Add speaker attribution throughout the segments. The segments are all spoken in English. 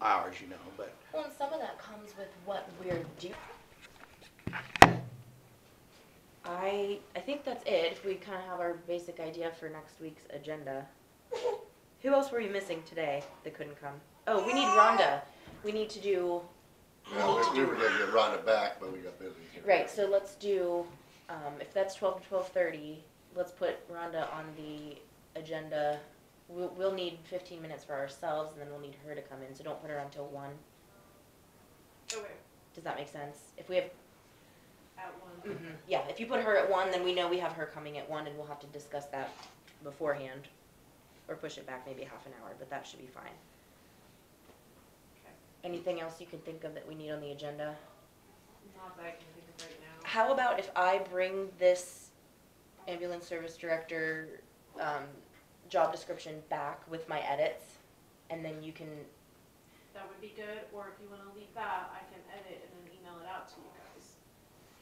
Speaker 1: hours, you know, but
Speaker 2: Well, and some of that comes with what we're doing. I, I think that's it, if we kind of have our basic idea for next week's agenda. Who else were we missing today that couldn't come? Oh, we need Rhonda. We need to do,
Speaker 3: Well, we- we were gonna get Rhonda back, but we got busy. here.
Speaker 2: right, so let's do, um, if that's twelve to twelve-thirty, let's put Rhonda on the agenda. We'll, we'll need fifteen minutes for ourselves, and then we'll need her to come in, so don't put her on till one.
Speaker 4: Okay,
Speaker 2: Does that make sense? If we have
Speaker 4: at one.
Speaker 2: Mhm. Yeah, if you put her at one, then we know we have her coming at one, and we'll have to discuss that beforehand, or push it back maybe half an hour, but that should be fine.
Speaker 4: Okay.
Speaker 2: Anything else you can think of that we need on the agenda?
Speaker 4: Not that I can think of right now.
Speaker 2: How about if I bring this ambulance service director, um, job description back with my edits, and then you can,
Speaker 4: That would be good, or if you wanna leave that, I can edit and then email it out to you guys.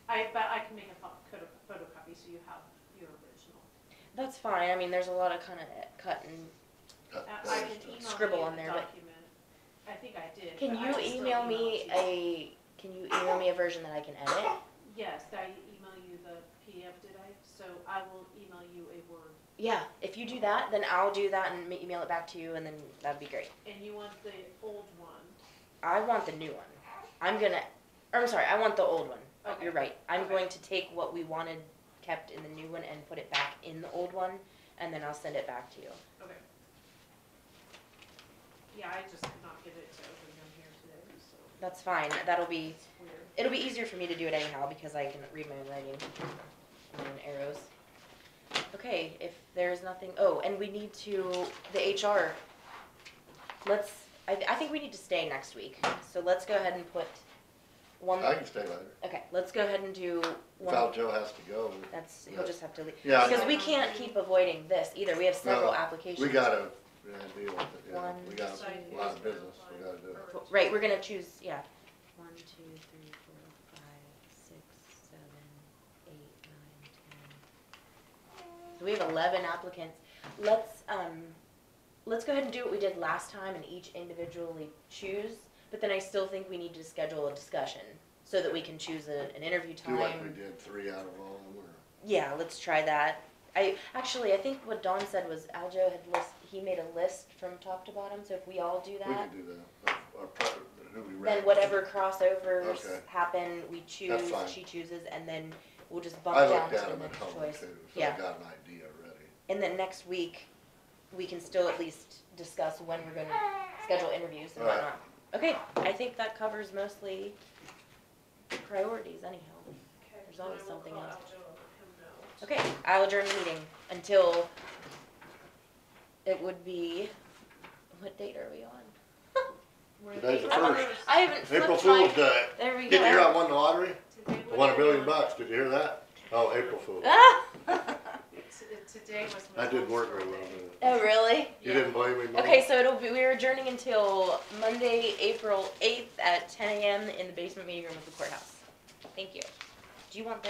Speaker 4: I, but I can make a pho- photo- photocopy so you have your original.
Speaker 2: that's fine, I mean, there's a lot of kinda cut and
Speaker 3: Got
Speaker 4: I I
Speaker 3: busy
Speaker 4: can
Speaker 3: stuff.
Speaker 2: Scribble
Speaker 4: email
Speaker 2: on
Speaker 4: you the
Speaker 2: there, but-
Speaker 4: document. I think I did.
Speaker 2: Can
Speaker 4: but I
Speaker 2: you
Speaker 4: can still
Speaker 2: email me
Speaker 4: it to you.
Speaker 2: a, can you email me a version that I can edit?
Speaker 4: Yes, I email you the PDF, did I? So I will email you a Word.
Speaker 2: Yeah, if you do that, then I'll do that and ma- email it back to you, and then that'd be great.
Speaker 4: And you want the old one.
Speaker 2: I want the new one. I'm gonna, or I'm sorry, I want the old one.
Speaker 4: Okay.
Speaker 2: You're right. I'm
Speaker 4: Okay.
Speaker 2: going to take what we wanted kept in the new one and put it back in the old one, and then I'll send it back to you.
Speaker 4: Okay. Yeah, I just could not get it to open them here today, so
Speaker 2: That's fine. That'll be,
Speaker 4: it's weird.
Speaker 2: it'll be easier for me to do it anyhow because I can read my own writing, my own arrows. Okay, if there's nothing, oh, and we need to, the HR. Let's, I, I think we need to stay next week, so let's go ahead and put one,
Speaker 3: I can stay later.
Speaker 2: okay, let's go ahead and do
Speaker 3: Val
Speaker 2: one.
Speaker 3: Joe has to go. we-
Speaker 2: That's, he'll just have to leave.
Speaker 3: Yeah, I
Speaker 2: Because
Speaker 3: know.
Speaker 2: we can't keep avoiding this either, we have several
Speaker 3: No,
Speaker 2: applications.
Speaker 3: We gotta, yeah, deal with it, yeah.
Speaker 2: One,
Speaker 3: We got
Speaker 4: So I
Speaker 3: a lot of
Speaker 4: use
Speaker 3: business,
Speaker 4: my
Speaker 3: we gotta do it.
Speaker 4: phone.
Speaker 2: Right, we're gonna choose, yeah. One, two, three, four, five, six, seven, eight, nine, ten. So we have eleven applicants. Let's, um, let's go ahead and do what we did last time and each individually choose, but then I still think we need to schedule a discussion so that we can choose a, an interview
Speaker 3: Do like we
Speaker 2: time.
Speaker 3: did three out of all of them,
Speaker 2: Yeah, let's try that. I, actually, I think what Don said was Aljo had list, he made a list from top to bottom, so if we all do
Speaker 3: or
Speaker 2: that.
Speaker 3: we could do that. Or- or pro- who we
Speaker 2: Then
Speaker 3: ran.
Speaker 2: whatever crossovers
Speaker 3: Okay.
Speaker 2: happen, we choose,
Speaker 3: fine.
Speaker 2: she chooses, and then we'll just bump
Speaker 3: I
Speaker 2: down
Speaker 3: looked
Speaker 2: to
Speaker 3: at
Speaker 2: the
Speaker 3: them at
Speaker 2: next
Speaker 3: home
Speaker 2: choice.
Speaker 3: too, so I
Speaker 2: Yeah,
Speaker 3: got an idea already.
Speaker 2: and then next week, we can still at least discuss when we're gonna schedule interviews and
Speaker 3: Right.
Speaker 2: whatnot. Okay, I think that covers mostly priorities anyhow.
Speaker 4: Okay,
Speaker 2: There's
Speaker 4: then
Speaker 2: always
Speaker 4: I will
Speaker 2: something
Speaker 4: call
Speaker 2: else.
Speaker 4: Aljo and let him know.
Speaker 2: Okay, I'll adjourn the meeting until it would be, what date are we on?
Speaker 4: We're at
Speaker 3: Today's the
Speaker 4: eight
Speaker 2: I'm on-
Speaker 4: hours.
Speaker 3: first.
Speaker 2: I haven't
Speaker 3: April
Speaker 2: flipped
Speaker 3: Fool's
Speaker 2: my,
Speaker 3: Day.
Speaker 2: there we go.
Speaker 3: Did you hear I won the lottery?
Speaker 4: Today
Speaker 3: I
Speaker 4: would
Speaker 3: won a
Speaker 4: have
Speaker 3: billion
Speaker 4: been-
Speaker 3: bucks, did you hear that? Oh, April Fool.
Speaker 2: Ah!
Speaker 4: T- Today was my.
Speaker 3: I did
Speaker 4: mom's
Speaker 3: work very well,
Speaker 4: birthday.
Speaker 3: didn't I?
Speaker 2: Oh, really?
Speaker 3: You
Speaker 4: Yeah.
Speaker 3: didn't blame me, Mom?
Speaker 2: Okay, so it'll be, we're adjourning until Monday, April eighth at ten AM in the basement meeting room of the courthouse. Thank you. Do you want the?